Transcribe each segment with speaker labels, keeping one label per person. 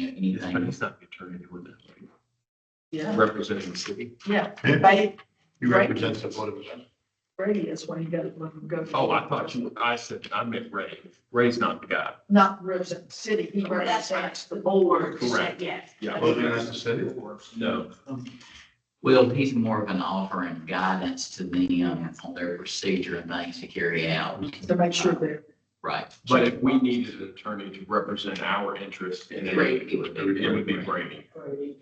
Speaker 1: anything
Speaker 2: He's not the attorney doing that.
Speaker 3: Yeah,
Speaker 2: Representing the city.
Speaker 3: yeah.
Speaker 4: He
Speaker 3: Brady,
Speaker 4: represents the Board of Assessors.
Speaker 3: Brady is when you gotta let him go.
Speaker 2: Oh, I thought you, I said, I meant Ray. Ray's not the guy.
Speaker 3: Not represent the city, he
Speaker 5: Well, that's right.
Speaker 3: represents the board.
Speaker 2: Correct.
Speaker 5: Yes.
Speaker 2: Yeah.
Speaker 4: Board of Assessors City.
Speaker 2: No,
Speaker 1: Well, he's more of an offer and guidance to them on their procedure and things to carry out.
Speaker 3: To make sure they're,
Speaker 1: Right.
Speaker 2: but if we needed an attorney to represent our interest in it,
Speaker 1: Right,
Speaker 2: it would it would be Brady.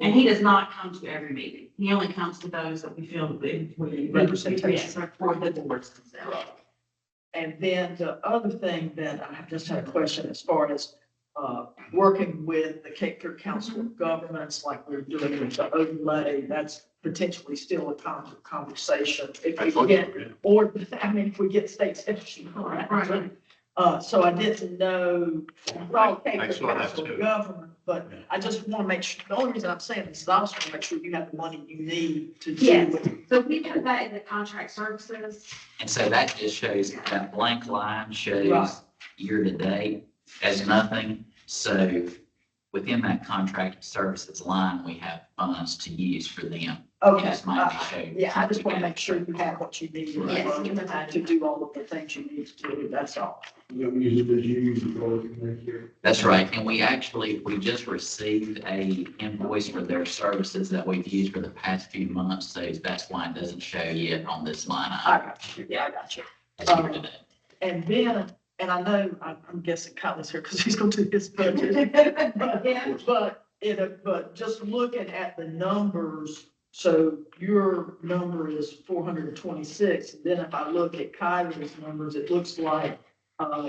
Speaker 5: And he does not come to every meeting. He only comes to those that we feel that we- we.
Speaker 3: Representation.
Speaker 5: Yes, or For the boards themselves.
Speaker 3: and then the other thing that I just had a question as far as, uh, working with the Cape Fear Council of Governments, like we're doing with the overlay, that's potentially still a con- conversation. If we get Or, I mean, if we get state statute.
Speaker 5: Right.
Speaker 3: Uh, so I didn't know, well, okay,
Speaker 4: I
Speaker 3: the
Speaker 4: saw that
Speaker 3: council
Speaker 4: too.
Speaker 3: government, but I just want to make sure, the only reason I'm saying this is I also want to make sure you have the money you need to do
Speaker 5: Yes.
Speaker 3: with.
Speaker 5: So we put that in the contract services.
Speaker 1: And so that just shows, that blank line
Speaker 3: Right.
Speaker 1: shows year to date as nothing. So within that contract services line, we have funds to use for them.
Speaker 3: Okay,
Speaker 1: Just might
Speaker 3: uh,
Speaker 1: be showed.
Speaker 3: yeah, I just want to make sure you have what you need to
Speaker 5: Yes,
Speaker 3: run,
Speaker 5: you provided.
Speaker 3: to do all of the things you need to do, that's all.
Speaker 1: That's right, and we actually, we just received a invoice for their services that we've used for the past few months, so that's why it doesn't show yet on this line
Speaker 3: I
Speaker 1: item.
Speaker 3: got you, yeah, I got you.
Speaker 1: as year to date.
Speaker 3: And then, and I know, I'm I'm guessing Kyle's here because he's going to do his budget. But-
Speaker 5: Yeah.
Speaker 3: But it, but just looking at the numbers, so your number is four hundred and twenty-six. Then if I look at Kyler's numbers, it looks like, uh,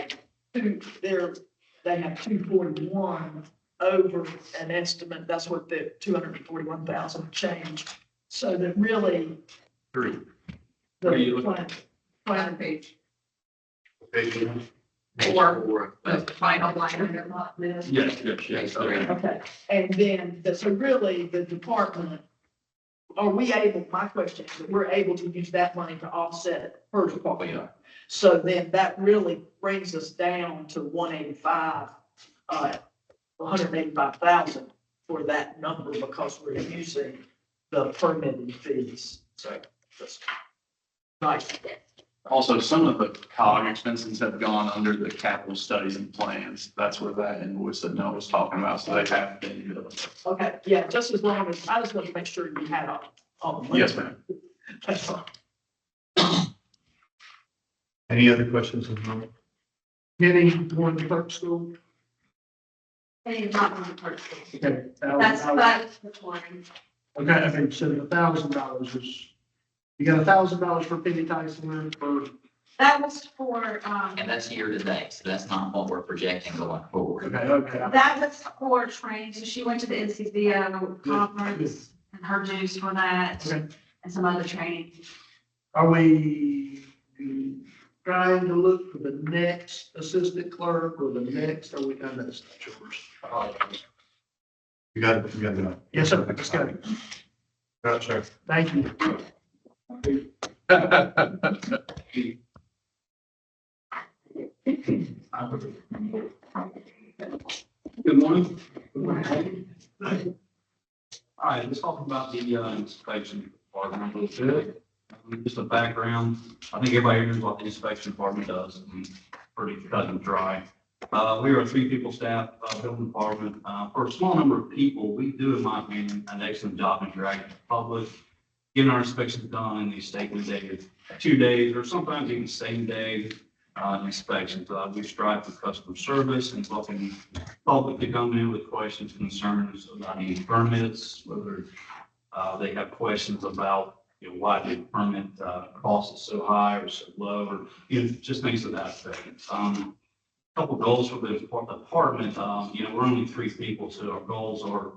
Speaker 3: two, they're, they have two forty-one over an estimate. That's what the two hundred and forty-one thousand change. So that really.
Speaker 2: Three. What are you
Speaker 3: the
Speaker 2: looking
Speaker 3: plan, plan page,
Speaker 1: Page
Speaker 3: Or-
Speaker 1: four,
Speaker 5: The
Speaker 1: but
Speaker 5: final line item.
Speaker 3: not this.
Speaker 2: Yes, yes, yes. okay.
Speaker 3: Okay, and then, the- so really, the department, are we able, my question is, that we're able to use that money to offset her
Speaker 6: Oh,
Speaker 1: We
Speaker 3: department?
Speaker 1: are.
Speaker 3: So then that really brings us down to one eighty-five, uh, one hundred eighty-five thousand for that number because we're using the permitting fees, so. that's Nice,
Speaker 6: Also, some of the COG expenses have gone under the capital studies and plans. That's where that invoice that Noah was talking about, so they have been.
Speaker 3: okay, yeah, just as long as, I just want to make sure you had all, all the money.
Speaker 6: Yes, ma'am.
Speaker 3: That's all.
Speaker 4: Any other questions? of Norm?
Speaker 3: Any more than clerk school?
Speaker 5: And it's not on the person.
Speaker 7: Okay,
Speaker 5: That's,
Speaker 7: thousand dollars.
Speaker 5: that's the one.
Speaker 7: Okay, I think so a thousand dollars is, you got a thousand dollars for Penny Tyson for,
Speaker 5: That was for, um,
Speaker 1: and that's year to date, so that's not what we're projecting going forward.
Speaker 7: okay, okay.
Speaker 5: that was for training. So she went to the NCBO conference and her dues for that
Speaker 7: Okay.
Speaker 5: and some other training.
Speaker 7: Are we trying to look for the next assistant clerk or the next, are we done that's not yours?
Speaker 4: You got it, you got it.
Speaker 7: Yes, sir, let's go.
Speaker 4: Right, sir.
Speaker 7: Thank you.
Speaker 8: Good morning. All right, let's talk about the uh, inspection department a little bit. Um, Just a background, I think everybody knows what the inspection department does, and pretty cut and dry. Uh, We are a three-people staff uh, building department. Uh, For a small number of people, we do, in my opinion, an excellent job in dragging the public, getting our inspections done in these statement days, two days, or sometimes even same day uh, inspections. Uh, We strive for customer service and welcome public to come in with questions, concerns about any permits, whether uh, they have questions about, you know, why the permit uh, cost is so high or so low, or, you know, just things of that effect. Um, Couple goals for the depart- department, um, you know, we're only three people, so our goals are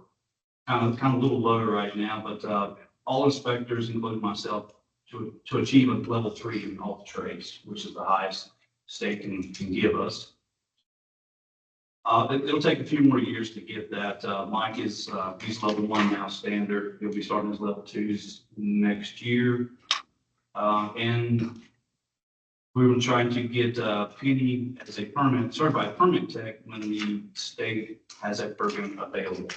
Speaker 8: kind of, kind of a little low right now, but uh, all inspectors, including myself, to, to achieve a level three in all trades, which is the highest state can, can give us. Uh, it, will take a few more years to get that. Uh, Mike is, uh, he's level one now standard. He'll be starting his level twos next year. Uh, and we were trying to get, uh, Penny as a permit, certified permit tech when the state has that program available.